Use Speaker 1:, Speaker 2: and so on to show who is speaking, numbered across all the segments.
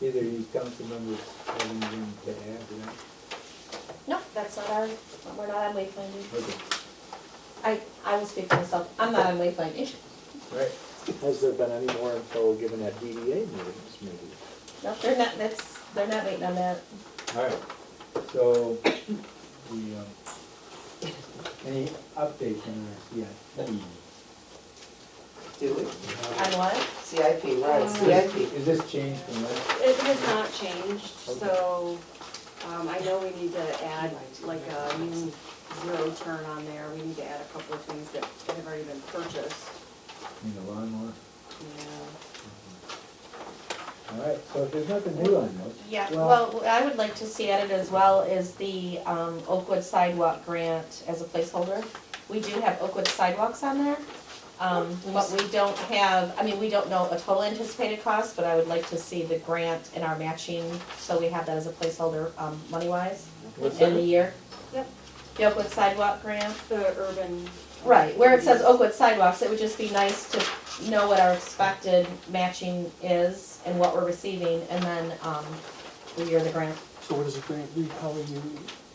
Speaker 1: Either you council members have anything to add to that?
Speaker 2: No, that's not our, we're not on wayfinding.
Speaker 1: Okay,
Speaker 2: I, I will speak for myself, I'm not on wayfinding.
Speaker 1: all right. Has there been any more info given at DDA meetings, maybe?
Speaker 2: No, they're not, that's, they're not waiting on that.
Speaker 1: All right, so, the, um, any updates on our CIP?
Speaker 3: Do we?
Speaker 2: On what?
Speaker 3: CIP, right,
Speaker 4: Um,
Speaker 3: CIP.
Speaker 1: Is this changed from last?
Speaker 4: It has not changed, so, um, I know we need to add like a new zero turn on there. We need to add a couple of things that have already been purchased.
Speaker 1: In the lawnmower?
Speaker 4: Yeah.
Speaker 1: All right, so if there's nothing new on those.
Speaker 2: Yeah, well, what I would like to see added as well is the um, Oakwood sidewalk grant as a placeholder. We do have Oakwood sidewalks on there, um, but we don't have, I mean, we don't know a total anticipated cost, but I would like to see the grant and our matching, so we have that as a placeholder, um, money-wise,
Speaker 1: What's
Speaker 2: in the
Speaker 1: that?
Speaker 2: year.
Speaker 4: Yep.
Speaker 2: The Oakwood sidewalk grant.
Speaker 4: The urban.
Speaker 2: Right, where it says oh, Oakwood sidewalks, it would just be nice to know what our expected matching is and what we're receiving, and then, um, the year of the grant.
Speaker 5: So what does the grant read, how are you,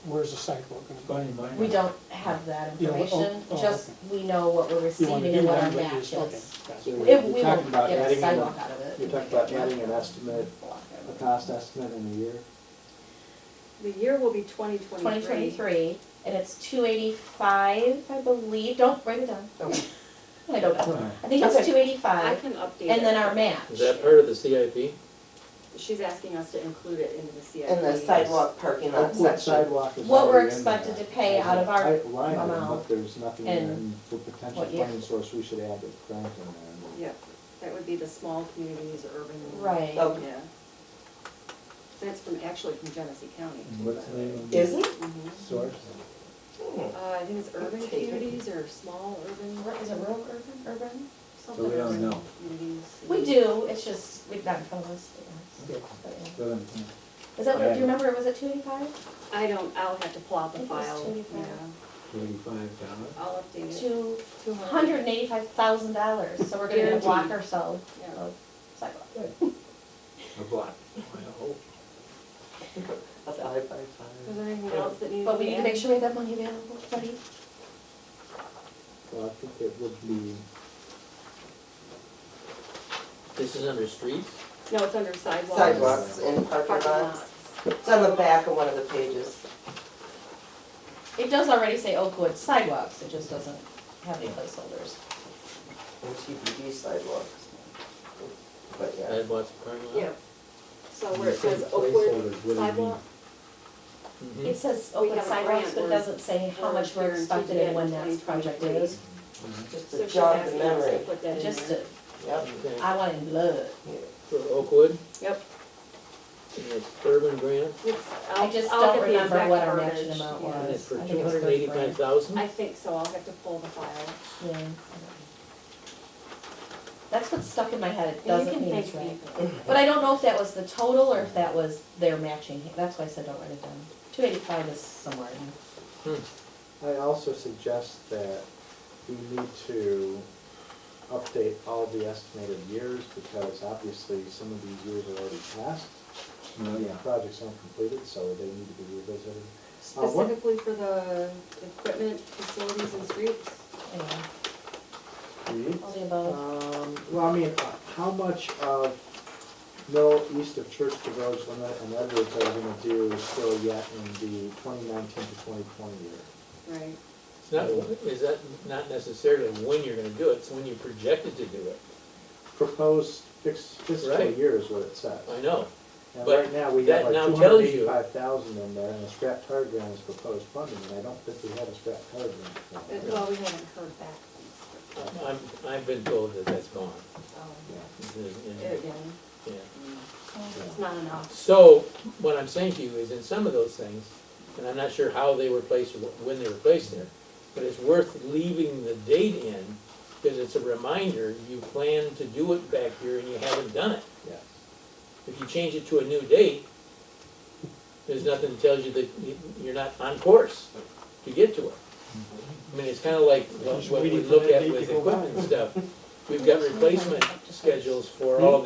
Speaker 5: where's the sidewalk gonna go?
Speaker 1: Funny, mine.
Speaker 2: We don't have that
Speaker 5: Yeah, well, oh,
Speaker 2: information,
Speaker 5: oh,
Speaker 2: just we know what we're
Speaker 5: You wanna
Speaker 2: receiving
Speaker 5: do
Speaker 2: and what our
Speaker 5: that, but
Speaker 2: match
Speaker 5: you- okay,
Speaker 2: is.
Speaker 5: gotcha.
Speaker 6: So
Speaker 2: If
Speaker 6: You're
Speaker 2: we
Speaker 6: talking
Speaker 2: won't
Speaker 6: about
Speaker 2: get a
Speaker 6: adding,
Speaker 2: sidewalk
Speaker 6: an-
Speaker 2: out of it.
Speaker 6: you're talking about adding an estimate, a cost estimate in a year?
Speaker 4: The year will be twenty twenty-three.
Speaker 2: Twenty twenty-three, and it's two eighty-five, I believe, don't write it down,
Speaker 3: Okay.
Speaker 2: I don't
Speaker 1: All
Speaker 2: know.
Speaker 1: right.
Speaker 2: I think it's
Speaker 3: Okay.
Speaker 2: two
Speaker 4: I
Speaker 2: eighty-five,
Speaker 4: can update it.
Speaker 2: and then our match.
Speaker 7: Is that part of the CIP?
Speaker 4: She's asking us to include it into the CIP.
Speaker 3: And the sidewalk parking lot
Speaker 6: Oakwood
Speaker 3: section.
Speaker 6: sidewalk is
Speaker 2: What we're
Speaker 6: already in there.
Speaker 2: expected to pay out of our
Speaker 6: There's a Line item,
Speaker 2: amount
Speaker 6: but there's nothing
Speaker 2: and
Speaker 6: in for potential
Speaker 2: what year.
Speaker 6: funding source, we should add the grant in there.
Speaker 4: Yep, that would be the small communities, urban.
Speaker 2: Right.
Speaker 3: Oh.
Speaker 4: Yeah. That's from, actually from Genesee County.
Speaker 1: And what's the name of the
Speaker 3: Is it?
Speaker 4: Mhm.
Speaker 1: source?
Speaker 4: Uh, I think it's urban
Speaker 3: Take it.
Speaker 4: communities or small urban,
Speaker 2: Is it rural, urban, urban?
Speaker 4: something.
Speaker 1: So we don't
Speaker 4: urban
Speaker 1: know.
Speaker 4: communities.
Speaker 2: We do, it's just, we've not found those.
Speaker 1: Okay.
Speaker 2: Is
Speaker 1: So, um,
Speaker 2: that, what- do you remember, was it two eighty-five?
Speaker 4: I don't, I'll have to pull out
Speaker 2: I
Speaker 4: the
Speaker 2: think it was
Speaker 4: file,
Speaker 2: 25.
Speaker 4: yeah,
Speaker 1: Eighty-five dollars?
Speaker 4: I'll update it.
Speaker 2: Two
Speaker 4: Two
Speaker 2: hundred and eighty-five thousand dollars, so we're gonna get a block or so
Speaker 4: Yeah.
Speaker 2: of sidewalk.
Speaker 1: A block. Well,
Speaker 3: That's five five five.
Speaker 4: Was there anything else that needed to be added?
Speaker 2: But we need to make sure we have that money available, buddy.
Speaker 6: Well, I think it would be,
Speaker 7: This is under streets?
Speaker 4: No, it's under sidewalks.
Speaker 3: Sidewalks and
Speaker 4: Parking
Speaker 3: parking lots.
Speaker 4: lots.
Speaker 3: It's on the back of one of the pages.
Speaker 2: It does already say Oakwood sidewalks, it just doesn't have any placeholders.
Speaker 3: And TBD sidewalks. But yeah.
Speaker 7: Sidewalks, parking lot?
Speaker 3: Yeah.
Speaker 4: So where it says
Speaker 1: Placeholders, what
Speaker 4: Oakwood
Speaker 1: do you mean?
Speaker 4: sidewalk,
Speaker 7: Mhm.
Speaker 2: It says
Speaker 4: We
Speaker 2: Oakwood
Speaker 4: have a grant
Speaker 2: sidewalks, but it
Speaker 4: where-
Speaker 2: doesn't say how
Speaker 4: where
Speaker 2: much we're
Speaker 4: guaranteed
Speaker 2: expected
Speaker 4: to
Speaker 2: and
Speaker 4: get
Speaker 2: when
Speaker 4: in
Speaker 2: that project
Speaker 4: 2023.
Speaker 2: is.
Speaker 3: Just
Speaker 4: so
Speaker 3: a
Speaker 4: she's
Speaker 3: jog the
Speaker 4: asking us to
Speaker 3: memory.
Speaker 4: put that in
Speaker 2: Just,
Speaker 4: there.
Speaker 2: to-
Speaker 3: Yep.
Speaker 7: Okay.
Speaker 2: I want it in blood.
Speaker 7: For Oakwood,
Speaker 4: Yep,
Speaker 7: and it's urban grant,
Speaker 4: it's,
Speaker 2: I
Speaker 4: I'll,
Speaker 2: just
Speaker 4: I'll
Speaker 2: don't
Speaker 4: get the exact verbiage.
Speaker 2: remember what our matching amount
Speaker 4: yeah.
Speaker 2: was.
Speaker 7: and it's for
Speaker 2: I think
Speaker 7: two
Speaker 2: it's
Speaker 7: hundred
Speaker 2: good
Speaker 7: and eighty-five thousand?
Speaker 4: I think so, I'll have to pull the file.
Speaker 2: Yeah. I don't know. That's what's stuck in my head, it
Speaker 4: Yeah, you
Speaker 2: doesn't
Speaker 4: can
Speaker 2: mean it's
Speaker 4: thank
Speaker 2: right.
Speaker 4: me.
Speaker 2: But I don't know if that was the total or if that was their matching, that's why I said don't write it down. Two eighty-five is somewhere in there.
Speaker 6: I also suggest that we need to update all the estimated years, because obviously some of these years are already passed.
Speaker 1: Well,
Speaker 6: The
Speaker 1: yeah.
Speaker 6: projects aren't completed, so they need to be revisited. Uh, what-
Speaker 4: Specifically for the equipment, facilities and streets?
Speaker 2: Anyway,
Speaker 6: Reed?
Speaker 2: all the above.
Speaker 6: Um, well, I mean, uh, how much of middle east of Church to Village Limit and Edwards are we gonna do still yet in the twenty nineteen to twenty twenty year?
Speaker 4: Right.
Speaker 7: It's not, is that not necessarily when you're gonna do it, it's when you projected to do it.
Speaker 6: Proposed fix- fiscal
Speaker 7: Right.
Speaker 6: year is what it says.
Speaker 7: I know,
Speaker 6: And
Speaker 7: but
Speaker 6: right now, we
Speaker 7: that
Speaker 6: have like
Speaker 7: now
Speaker 6: two
Speaker 7: tells
Speaker 6: hundred
Speaker 7: you-
Speaker 6: eighty-five thousand in there, and the scrap tire grant is proposed funding, and I don't think we have a scrap tire grant.
Speaker 4: Uh,
Speaker 6: for that.
Speaker 4: Well, we haven't heard back from
Speaker 7: I'm, I've been told that that's gone.
Speaker 4: this,
Speaker 6: Yeah.
Speaker 7: It's in-
Speaker 4: um,
Speaker 7: in-
Speaker 4: again,
Speaker 7: yeah.
Speaker 4: it's not enough.
Speaker 7: So, what I'm saying to you is, in some of those things, and I'm not sure how they were placed or wh- when they were placed there, but it's worth leaving the date in, because it's a reminder, you planned to do it back here and you haven't done it.
Speaker 6: Yes.
Speaker 7: If you change it to a new date, there's nothing that tells you that you- you're not on course to get to it. I mean, it's kinda like what
Speaker 5: Just
Speaker 7: what we
Speaker 5: waiting for
Speaker 7: look
Speaker 5: that
Speaker 7: at
Speaker 5: date to
Speaker 7: with
Speaker 5: go by.
Speaker 7: equipment stuff. We've got replacement schedules for all of